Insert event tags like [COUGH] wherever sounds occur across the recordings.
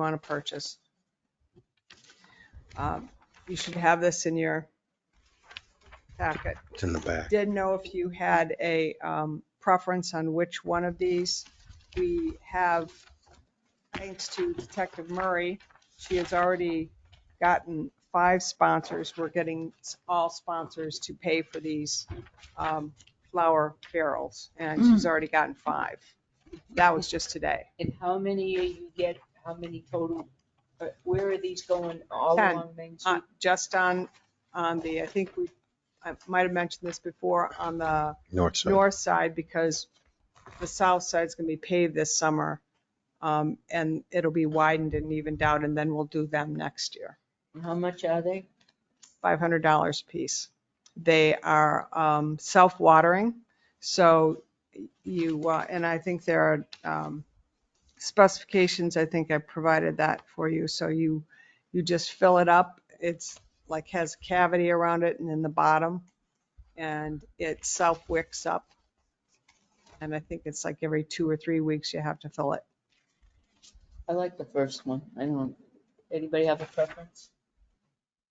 want to purchase. Um, You should have this in your packet. It's in the back. Didn't know if you had a um, preference on which one of these. We have, thanks to Detective Murray, she has already gotten five sponsors. We're getting s- all sponsors to pay for these um, flower barrels, and she's already gotten five. That was just today. And how many are you get, how many total, uh, where are these going all Ten. along Main Uh, Street? Just on, on the, I think we, I might have mentioned this before, on the North side. north side because the south side's gonna be paved this summer. Um, and it'll be widened and evened out and then we'll do them next year. And How much are they? Five hundred dollars a piece. They are, um, self-watering, so you, uh, and I think there are, um, specifications, I think I provided that for you, so you, you just fill it up. It's like has a cavity around it and in the bottom, and it self-wicks up. And I think it's like every two or three weeks you have to fill it. I like the first one. I don't, anybody have a preference?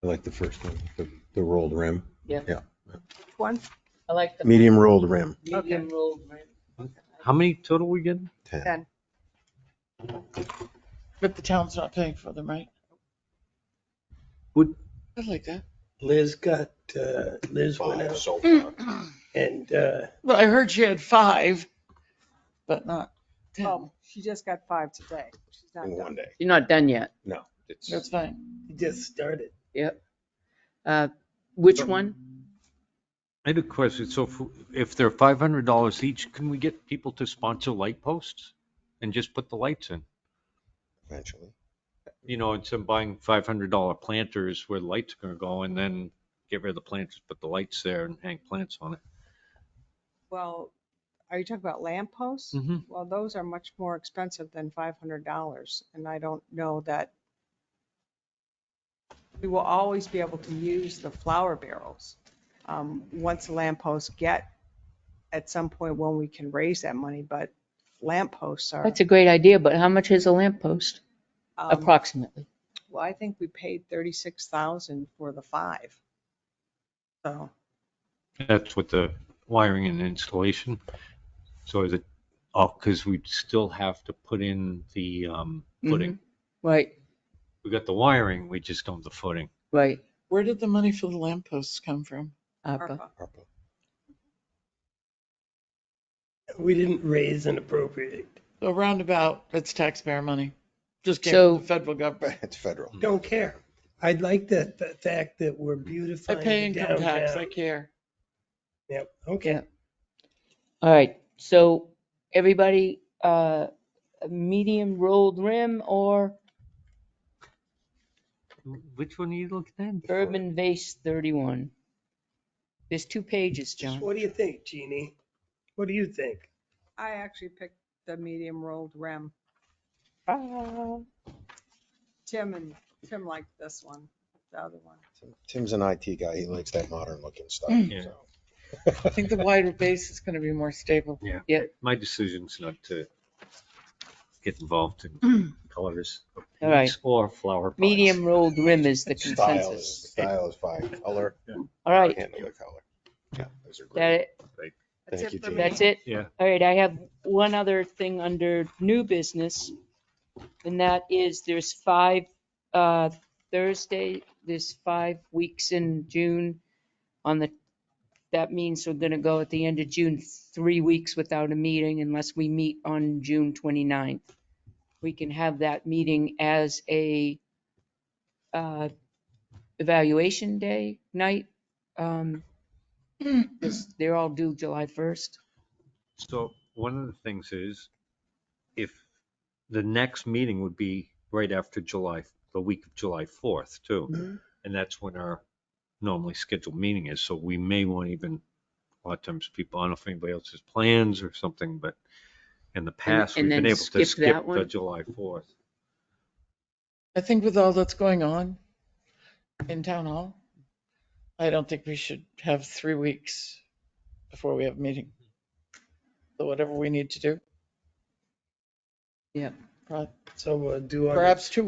I like the first one, the, the rolled rim, One, I like the medium rolled rim, medium rolled rim. How many total we getting? 10. ten. But the town's not paying for them, right? Would- I like that. Liz got, uh, Liz went out and, uh, Well, I heard she had five, but not ten. Oh, she just got five today. She's not in done. one day. You're not done yet. No, it's That's fine. just started. Uh, Which one? I had a question. So if- if they're five hundred dollars each, can we get people to sponsor light posts and just put the lights in? eventually. You know, instead of buying five hundred dollar planters where the lights are gonna go and then get rid of the planters, put the lights there and hang plants on it. Well, are you talking about lamp posts? Mhm. Well, those are much more expensive than five hundred dollars, and I don't know that we will always be able to use the flower barrels. Um, once the lamp posts get, at some point when we can raise that money, but lamp posts are. That's a great idea, but how much is a lamppost um, approximately? Well, I think we paid thirty-six thousand for the five. So, That's with the wiring and installation. So is it, oh, cause we'd still have to put in the, um, footing. Right, We got the wiring, we just don't have the footing. right. uh, Where did the money for the lampposts come from? ARPA. ARPA. Purple. We didn't raise and appropriate. A roundabout, it's taxpayer money. Just came So- from the federal government. It's federal. Don't care. I'd like the, the fact that we're I pay beautifying income tax, I downtown. care. Yep, okay. All right, so everybody, uh, medium rolled rim or Which one are you looking at? urban vase 31? There's two pages, John. What do you think, Jeannie? What do you think? I actually picked the medium rolled rim. Tim and, Tim liked this one, the other one. Tim's an IT guy. He likes that modern looking stuff. Yeah. so. [LAUGHS] I think the wider base is gonna be more stable. Yeah. Yeah. My decision's not to get involved [CLEARS THROAT] in colors of All right. paints or flower pots. Medium rolled rim is the Style is, consensus. style is fine. Color, All right, handle the color. Yeah, those are that great. it? That's it Thank you, for me. Jean. That's it? Yeah. All right, I have one other thing under new business. And that is there's five, uh, Thursday, there's five weeks in June on the, that means we're gonna go at the end of June, three weeks without a meeting unless we meet on June 29th. We can have that meeting as a, uh, evaluation day night. Um, 'cause they're all due July 1st. So one of the things is if the next meeting would be right after July, the week of July 4th Mm-hmm. too. And that's when our normally scheduled meeting is. So we may want even, a lot of times people, I don't know if anybody else has plans or something, but in the past, and we've been then able to skip that skip the one? July 4th. I think with all that's going on in town hall, I don't think we should have three weeks before we have a meeting. So whatever we need to do. Yeah. Right. So we'll do. August Perhaps two weeks.